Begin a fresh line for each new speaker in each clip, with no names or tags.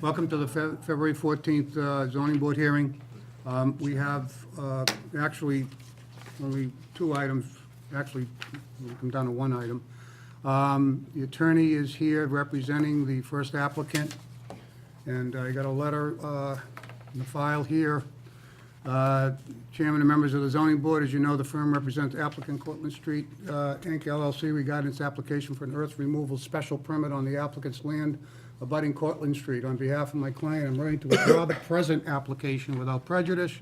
Welcome to the Fe- February 14th uh, zoning board hearing. Um, We have uh, actually only two items, actually, we'll come down to one item. Um, The attorney is here representing the first applicant, and I got a letter uh, in the file here. Uh, Chairman and members of the zoning board, as you know, the firm represents applicant Cortlandt Street, uh, Inc., LLC, regarding its application for an earth removal special permit on the applicant's land abutting Cortlandt Street. On behalf of my client, I'm ready to withdraw the present application without prejudice.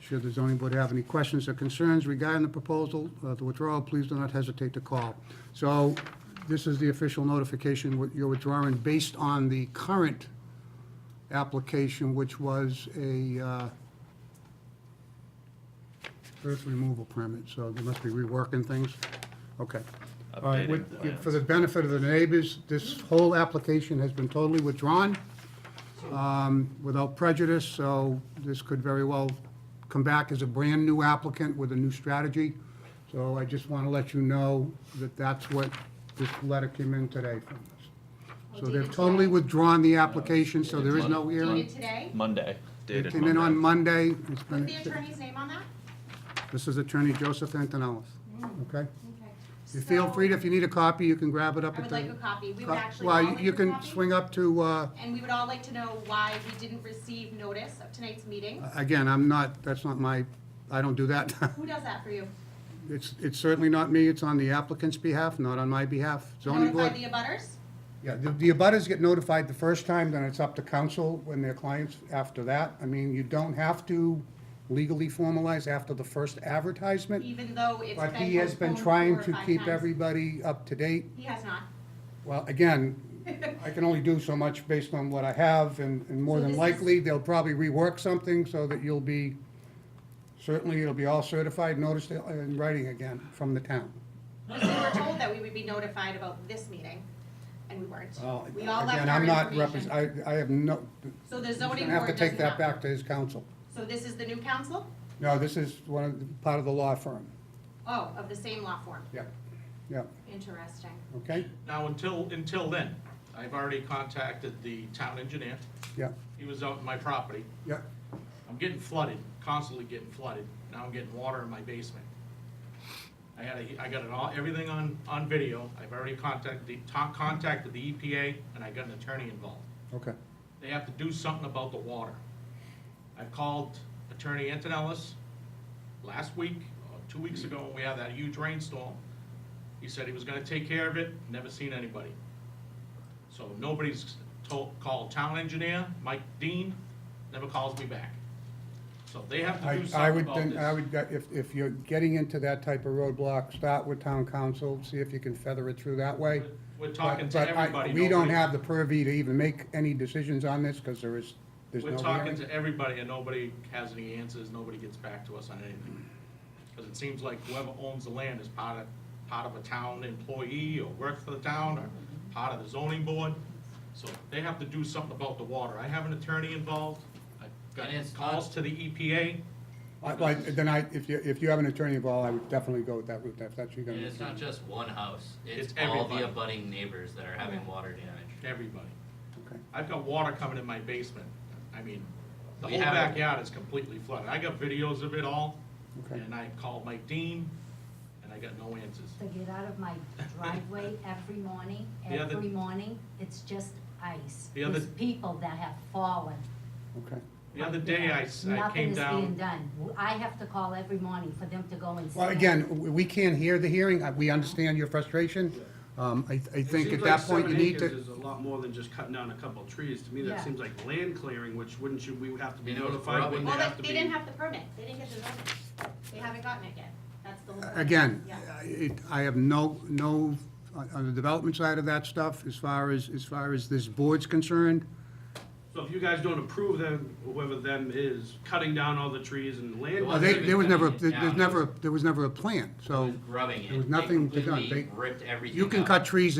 Should the zoning board have any questions or concerns regarding the proposal, uh, the withdrawal, please do not hesitate to call. So this is the official notification, what you're withdrawing based on the current application, which was a uh, earth removal permit, so they must be reworking things. Okay. All right, with-
Updating plans.
For the benefit of the neighbors, this whole application has been totally withdrawn um, without prejudice, so this could very well come back as a brand-new applicant with a new strategy. So I just want to let you know that that's what this letter came in today from us. So they've totally withdrawn the application, so there is no
Dated
hearing.
today?
Monday.
It
Dated
came in on
Monday.
Monday. It's
What's
been-
the attorney's name on that?
This is Attorney Joseph Antonellis, okay?
Okay.
You feel
So,
free, to- if you need a copy, you can grab it up
Mm. I
at
would
the...
like a copy. We would actually all
Well,
like
you- you
a
can
copy.
swing up to, uh,
And we would all like to know why we didn't receive notice of tonight's meeting.
again, I'm not, that's not my, I don't do that.
Who does that for you?
It's, it's certainly not me, it's on the applicant's behalf, not on my behalf. Zoning
Notify
board,
the abutters?
yeah, the the abutters get notified the first time, then it's up to council when their clients after that. I mean, you don't have to legally formalize after the first advertisement,
even though it's been
but he has been
postponed
trying
four or
to
five
keep
times.
everybody up to date.
He has not.
Well, again, I can only do so much based on what I have, and, and more
So
than
this is-
likely, they'll probably rework something so that you'll be, certainly, it'll be all certified, noticed in writing again from the town.
Because we were told that we would be notified about this meeting, and we weren't.
Well,
We all left
again,
our
I'm not
information.
represent- I, I have no,
So the
I'm gonna
zoning
have to
board does
take that
not.
back to his council.
So this is the new council?
No, this is one of, the- part of the law firm.
Oh, of the same law form.
Yep, yep,
Interesting.
okay,
Now, until, until then, I've already contacted the town engineer.
yep,
He was out on my property.
yep.
I'm getting flooded, constantly getting flooded. Now I'm getting water in my basement. I had, a- I got it all, everything on, on video. I've already contacted, the ta- contacted the EPA, and I got an attorney involved.
Okay,
They have to do something about the water. I've called Attorney Antonellis last week, or two weeks ago, when we had that huge rainstorm. He said he was gonna take care of it, never seen anybody. So nobody's told, called town engineer, Mike Dean, never calls me back. So they have to
I,
do
I
something
would,
about
think- I
this.
would, uh, if, if you're getting into that type of roadblock, start with town council, see if you can feather it through that way.
We're talking to
But- but I-
everybody.
We don't
nobody-
have the purview to even make any decisions on this, because there is, there's no
We're talking
hearing.
to everybody and nobody has any answers, nobody gets back to us on anything. Because it seems like whoever owns the land is part of, part of a town employee or works for the town or part of the zoning board. So they have to do something about the water. I have an attorney involved. I've got
And it's not-
calls to the E EPA.
I- like, Then I, if you, if you have an attorney involved, I would definitely go with that route, if that's what you're
And
gonna
it's not
do.
just one house, it's
It's
all
everybody.
the abutting neighbors that are having water damage.
Everybody.
Okay.
I've got water coming in my basement. I mean, the
We
whole
have-
backyard is completely flooded. I got videos of it all.
Okay.
And I called Mike Dean and I got no answers.
to get out of my driveway every morning,
The other-
every morning, it's just ice.
The other-
There's people that have fallen.
Okay.
The other day I, s- I came
Nothing is
down.
being done. I have to call every morning for them to go and.
Well,
see.
again, w- we can't hear the hearing, Uh, we understand your frustration. Um, I, I think at that point, you need
It
to,
seems like seven acres is a lot more than just cutting down a couple of trees. To me,
Yeah.
that seems like land clearing, which wouldn't you, we would have to be
You know, it's
notified,
probably-
wouldn't
Well,
they
they-
have to be?
they didn't have the permit. They didn't get the notice. They haven't gotten it yet. That's the whole point.
again,
Yeah.
I- it- I have no, no, uh, on on the development side of that stuff, as far as, as far as this board's concerned,
So if you guys don't approve them, whoever them is, cutting down all the trees and land.
uh,
Well,
they-
even
there was never, a-
cutting it
there- there's
down.
never, a- there was never a plan,
It
so
was Grubbing it.
there was
They
nothing to done.
completely
They-
Ripped everything
you can
up.
cut trees